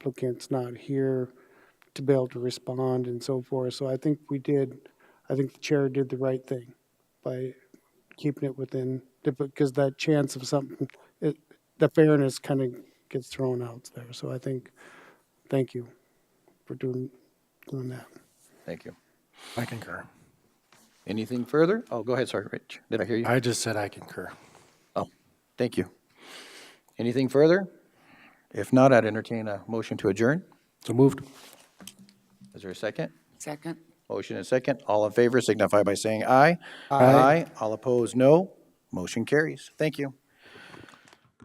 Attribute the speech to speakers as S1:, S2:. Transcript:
S1: applicant's not here to be able to respond and so forth. So I think we did, I think the chair did the right thing by keeping it within, because that chance of something, it, the fairness kind of gets thrown out there. So I think, thank you for doing, doing that.
S2: Thank you.
S3: I concur.
S2: Anything further? Oh, go ahead, sorry, Rich. Did I hear you?
S3: I just said I concur.
S2: Oh, thank you. Anything further? If not, I'd entertain a motion to adjourn.
S3: So moved.
S2: Is there a second?
S4: Second.
S2: Motion and second. All in favor signify by saying aye. Aye. All opposed, no. Motion carries. Thank you.